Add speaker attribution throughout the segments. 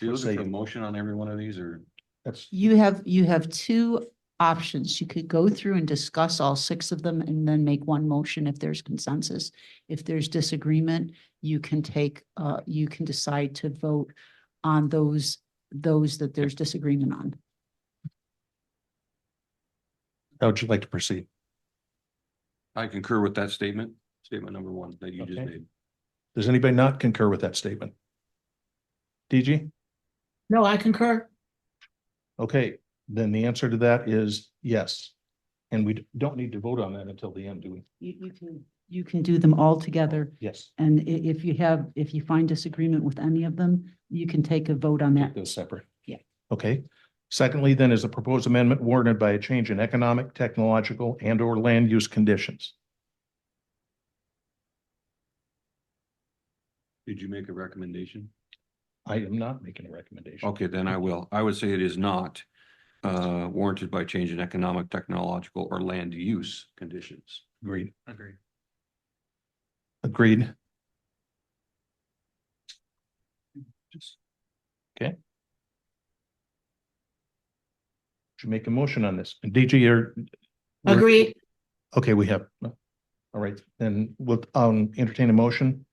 Speaker 1: You're looking for a
Speaker 2: Say-
Speaker 1: motion on every one of these or?
Speaker 2: That's,
Speaker 3: You have, you have two options. You could go through and discuss all six of them and then make one motion if there's consensus. If there's disagreement, you can take, uh, you can decide to vote on those, those that there's disagreement on.
Speaker 2: how would you like to proceed?
Speaker 1: I concur with that statement, statement number one that you just
Speaker 2: Okay.
Speaker 1: made.
Speaker 2: Does anybody not concur with that statement? DG?
Speaker 4: No, I concur.
Speaker 2: Okay, then the answer to that is yes. And we d- don't need to vote on that until the end, do we?
Speaker 3: You, you can, you can do them all together.
Speaker 2: Yes.
Speaker 3: And i- if you have, if you find disagreement with any of them, you can take a vote on
Speaker 2: Take
Speaker 3: that.
Speaker 2: those separate.
Speaker 3: Yeah.
Speaker 2: Okay. Secondly, then, is the proposed amendment warranted by a change in economic, technological, and or land use conditions?
Speaker 1: Did you make a recommendation?
Speaker 2: I am not making a recommendation.
Speaker 1: Okay, then I will. I would say it is not uh warranted by change in economic, technological, or land use conditions.
Speaker 2: Agreed.
Speaker 1: Agreed.
Speaker 2: Agreed.
Speaker 1: Just
Speaker 2: Should make a motion on this. And DG, you're. we're-
Speaker 4: Agreed.
Speaker 2: Okay, we have. All right, then we'll um entertain a motion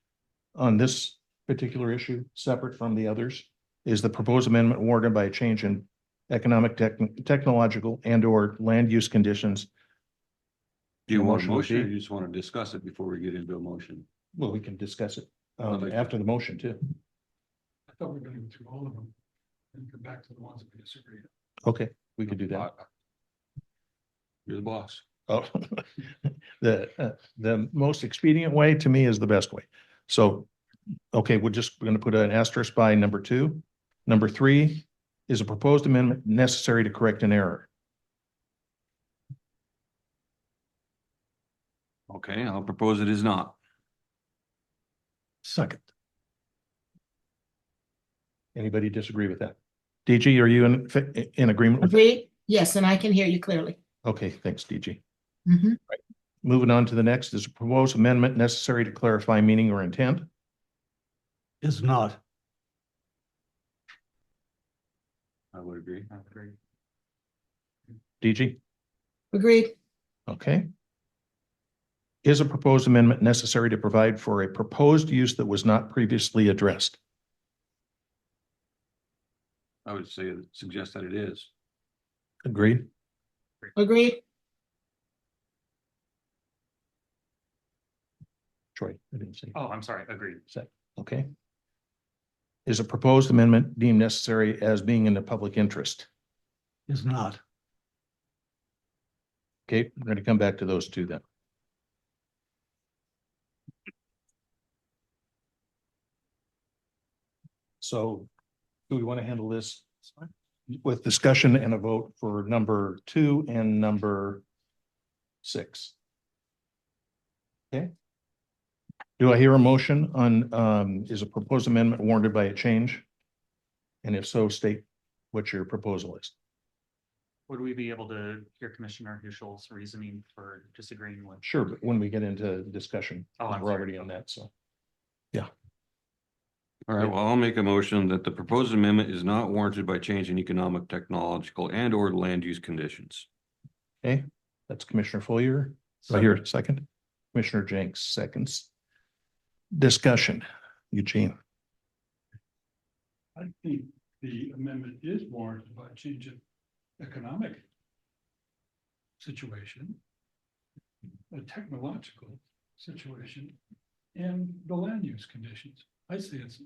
Speaker 2: on this particular issue, separate from the others. Is the proposed amendment warranted by a change in economic, tech, technological and or land use conditions?
Speaker 1: Do you want a
Speaker 2: Motion would
Speaker 1: motion or
Speaker 2: be-
Speaker 1: you just want to discuss it before we get into a motion?
Speaker 2: Well, we can discuss it um after the motion too.
Speaker 5: I thought we were gonna go through all of them and come back to the ones that we disagree.
Speaker 2: Okay, we can do that.
Speaker 1: You're the boss.
Speaker 2: Oh, the uh, the most expedient way to me is the best way. So, okay, we're just going to put an asterisk by number two. Number three, is a proposed amendment necessary to correct an error?
Speaker 1: Okay, I'll propose it is not.
Speaker 2: Second. Anybody disagree with that? DG, are you in, fa- in agreement with?
Speaker 4: Agreed. Yes, and I can hear you clearly.
Speaker 2: Okay, thanks, DG.
Speaker 4: Mhm.
Speaker 2: Moving on to the next, is a proposed amendment necessary to clarify meaning or intent?
Speaker 6: is not.
Speaker 1: I would agree.
Speaker 5: I agree.
Speaker 2: DG?
Speaker 4: Agreed.
Speaker 2: Okay. Is a proposed amendment necessary to provide for a proposed use that was not previously addressed?
Speaker 1: I would say, suggest that it is.
Speaker 2: Agreed.
Speaker 4: Agreed.
Speaker 2: Troy, I didn't see.
Speaker 5: Oh, I'm sorry, agreed.
Speaker 2: Okay. Is a proposed amendment deemed necessary as being in the public interest?
Speaker 6: Is not.
Speaker 2: Okay, we're going to come back to those two then. So do we want to handle this with discussion and a vote for number two and number six? Okay. Do I hear a motion on, um, is a proposed amendment warranted by a change? And if so, state what your proposal is.
Speaker 7: Would we be able to hear Commissioner Hushel's reasoning for disagreeing with?
Speaker 2: Sure, but when we get into discussion,
Speaker 7: Oh, I'm
Speaker 2: we're
Speaker 7: sorry.
Speaker 2: already on that, so.
Speaker 1: All right,
Speaker 2: Yeah.
Speaker 1: well, I'll make a motion that the proposed amendment is not warranted by change in economic, technological, and or land use conditions.
Speaker 2: Okay, that's Commissioner Foyer. Do I hear a second? Commissioner Jenks, seconds. Discussion, Eugene.
Speaker 5: I think the amendment is warranted by a change in economic situation, a technological situation, and the land use conditions. I say it's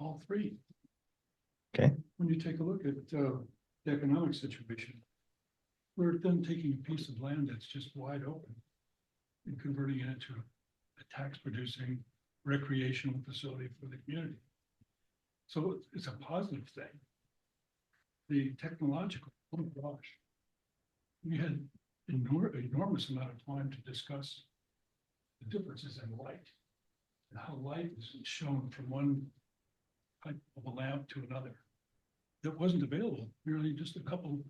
Speaker 5: all three.
Speaker 2: Okay.
Speaker 5: When you take a look at uh, the economic situation, we're then taking a piece of land that's just wide open and converting it into a tax-producing recreational facility for the community. So it's- it's a positive thing. The technological, oh my gosh. We had enor- enormous amount of time to discuss the differences in light. And how light is shown from one type of a lamp to another. That wasn't available merely just a couple,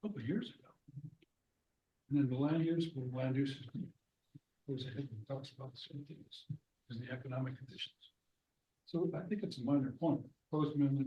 Speaker 5: couple of years ago. And then the land use, well, land use is. Goes ahead and talks about the same things, as the economic conditions. So I think it's a minor point, proposed amendment